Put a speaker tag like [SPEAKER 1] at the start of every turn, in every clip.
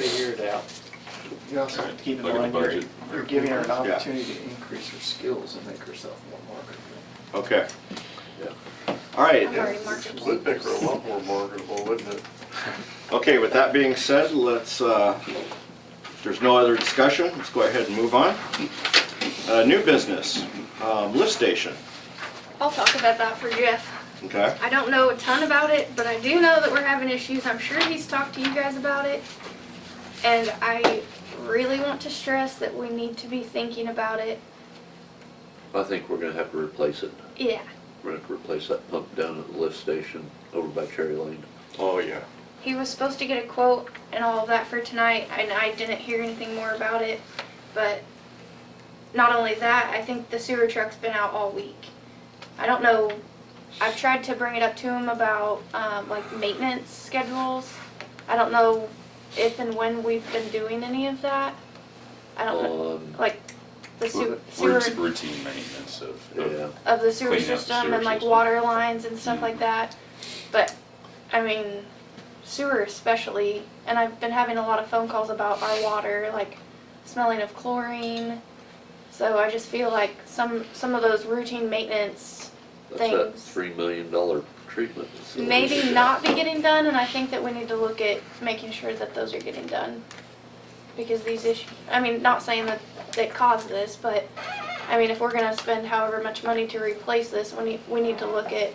[SPEAKER 1] figured out. You also have to keep in
[SPEAKER 2] Look at the
[SPEAKER 1] mind, you're,
[SPEAKER 2] budget.
[SPEAKER 1] you're giving her an
[SPEAKER 2] Yeah.
[SPEAKER 1] opportunity to increase her skills and make herself more marketable.
[SPEAKER 2] Okay,
[SPEAKER 3] Yeah.
[SPEAKER 2] all right.
[SPEAKER 4] I'm already marketable.
[SPEAKER 3] Would make her a lot more marketable, wouldn't it?
[SPEAKER 2] Okay, with that being said, let's, uh, if there's no other discussion, let's go ahead and move on. Uh, New business, um, lift station,
[SPEAKER 4] I'll talk about that for Jeff.
[SPEAKER 2] okay?
[SPEAKER 4] I don't know a ton about it, but I do know that we're having issues. I'm sure he's talked to you guys about it. And I really want to stress that we need to be thinking about it.
[SPEAKER 5] I think we're gonna have to replace it.
[SPEAKER 4] Yeah,
[SPEAKER 5] We're gonna have to replace that pump down at the lift station over by Cherry Lane.
[SPEAKER 2] Oh, yeah.
[SPEAKER 4] he was supposed to get a quote and all of that for tonight, and I didn't hear anything more about it. But not only that, I think the sewer truck's been out all week. I don't know. I've tried to bring it up to him about um, like maintenance schedules. I don't know if and when we've been doing any of that. I don't know,
[SPEAKER 5] Um,
[SPEAKER 4] like the sewer, sewer
[SPEAKER 6] Routine routine maintenance of,
[SPEAKER 5] yeah,
[SPEAKER 6] of-
[SPEAKER 4] of the sewer
[SPEAKER 6] Cleaning up the
[SPEAKER 4] system
[SPEAKER 6] sewer
[SPEAKER 4] and like
[SPEAKER 6] system.
[SPEAKER 4] water lines and stuff
[SPEAKER 6] Mhm.
[SPEAKER 4] like that. But, I mean, sewer especially, and I've been having a lot of phone calls about our water, like smelling of chlorine. So I just feel like some, some of those routine maintenance
[SPEAKER 5] that's that
[SPEAKER 4] Thanks.
[SPEAKER 5] three million dollar treatment. facility.
[SPEAKER 4] maybe not be getting done, and I think that we need to look at making sure that those are getting done. Because these issues, I mean, not saying that that caused this, but, I mean, if we're gonna spend however much money to replace this, we need, we need to look at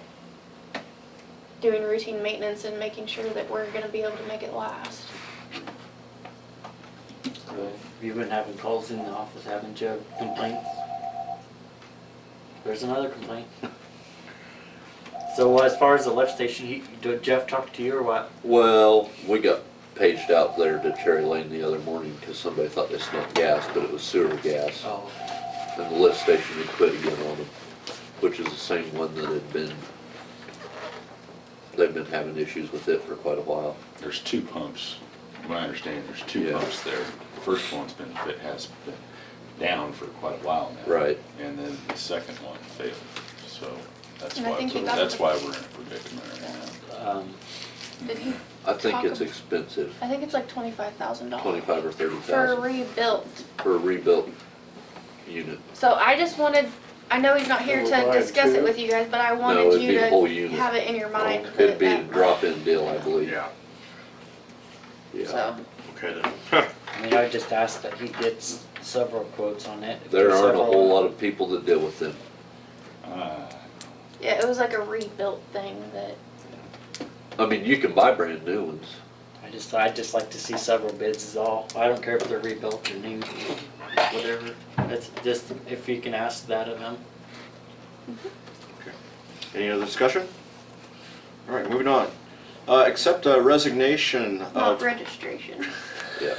[SPEAKER 4] doing routine maintenance and making sure that we're gonna be able to make it last.
[SPEAKER 7] So you've been having calls in the office, haven't you? Complaints? There's another complaint. So uh, as far as the lift station, he, did Jeff talk to you or what?
[SPEAKER 5] Well, we got paged out there to Cherry Lane the other morning because somebody thought they smelled gas, but it was sewer gas.
[SPEAKER 7] Oh.
[SPEAKER 5] And the lift station had quit again on them, which is the same one that had been, they've been having issues with it for quite a while.
[SPEAKER 6] there's two pumps. From what I understand, there's two
[SPEAKER 5] Yeah.
[SPEAKER 6] pumps there. The first one's been, fit has been down for quite a while now.
[SPEAKER 5] Right.
[SPEAKER 6] And then the second one failed, so that's
[SPEAKER 4] And I
[SPEAKER 6] why,
[SPEAKER 4] think he got
[SPEAKER 6] that's
[SPEAKER 4] the-
[SPEAKER 6] why we're in a predicament right now.
[SPEAKER 7] Um,
[SPEAKER 4] Did he?
[SPEAKER 5] I think it's
[SPEAKER 4] Talk-
[SPEAKER 5] expensive,
[SPEAKER 4] I think it's like twenty-five thousand dollars.
[SPEAKER 5] twenty-five or thirty
[SPEAKER 4] For
[SPEAKER 5] thousand.
[SPEAKER 4] rebuilt,
[SPEAKER 5] for a rebuilt unit.
[SPEAKER 4] so I just wanted, I know he's not here to
[SPEAKER 3] Little line,
[SPEAKER 4] discuss it
[SPEAKER 3] too.
[SPEAKER 4] with you guys, but I
[SPEAKER 5] No,
[SPEAKER 4] wanted
[SPEAKER 5] it'd
[SPEAKER 4] you
[SPEAKER 5] be a whole
[SPEAKER 4] to
[SPEAKER 5] unit.
[SPEAKER 4] have it in your mind.
[SPEAKER 5] It'd be a
[SPEAKER 4] that-
[SPEAKER 5] drop-in deal, I believe.
[SPEAKER 2] Yeah,
[SPEAKER 5] Yeah.
[SPEAKER 4] So,
[SPEAKER 2] okay then.
[SPEAKER 7] I mean, I just asked that he gets several quotes on it. If
[SPEAKER 5] There
[SPEAKER 7] there's
[SPEAKER 5] aren't a
[SPEAKER 7] several-
[SPEAKER 5] whole lot of people that deal with them. Ah.
[SPEAKER 6] Uh,
[SPEAKER 4] yeah, it was like a rebuilt thing that,
[SPEAKER 5] I mean, you can buy brand new ones.
[SPEAKER 7] I just, I'd just like to see several bids is all. I don't care if they're rebuilt or new, whatever. It's just, if you can ask that of him.
[SPEAKER 2] Any other discussion? All right, moving on. Uh, Accept a resignation
[SPEAKER 4] not
[SPEAKER 2] of,
[SPEAKER 4] registration.
[SPEAKER 5] Yeah.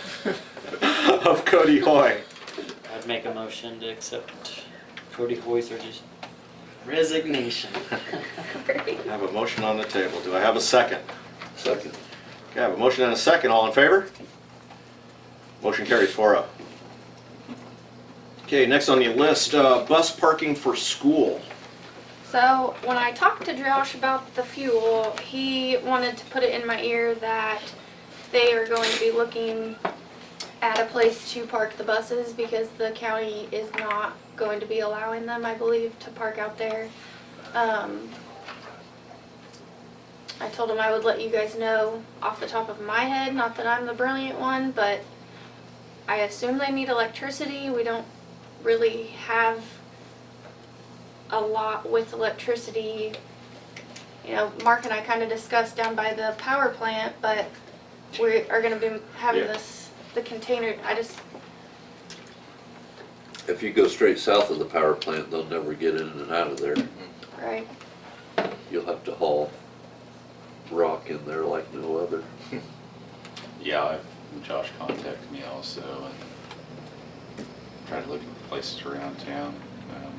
[SPEAKER 2] of Cody Hoy.
[SPEAKER 7] I'd make a motion to accept Cody Hoy's regis- resignation.
[SPEAKER 4] Right.
[SPEAKER 2] I have a motion on the table. Do I have a second?
[SPEAKER 5] Second.
[SPEAKER 2] Okay, I have a motion and a second. All in favor? Motion carries four oh. Okay, next on the list, uh, bus parking for school.
[SPEAKER 4] So when I talked to Josh about the fuel, he wanted to put it in my ear that they are going to be looking at a place to park the buses because the county is not going to be allowing them, I believe, to park out there. Um, I told him I would let you guys know off the top of my head, not that I'm the brilliant one, but I assume they need electricity. We don't really have a lot with electricity. You know, Mark and I kind of discussed down by the power plant, but we are gonna be having
[SPEAKER 2] Yeah.
[SPEAKER 4] this, the container, I just,
[SPEAKER 5] If you go straight south of the power plant, they'll never get in and out of there.
[SPEAKER 4] right?
[SPEAKER 5] You'll have to haul rock in there like no other.
[SPEAKER 6] yeah, I've- Josh contacted me also and tried to look at places around town. Um,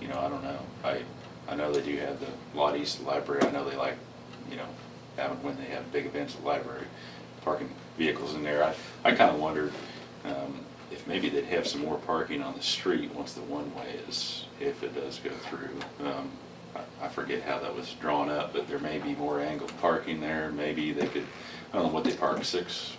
[SPEAKER 6] You know, I don't know. I, I know they do have the Lot East Library. I know they like, you know, having, when they have big events at the library, parking vehicles in there. I, I kind of wondered um, if maybe they'd have some more parking on the street once the one-way is, if it does go through. Um, I I forget how that was drawn up, but there may be more angled parking there. Maybe they could, I don't know what they park, six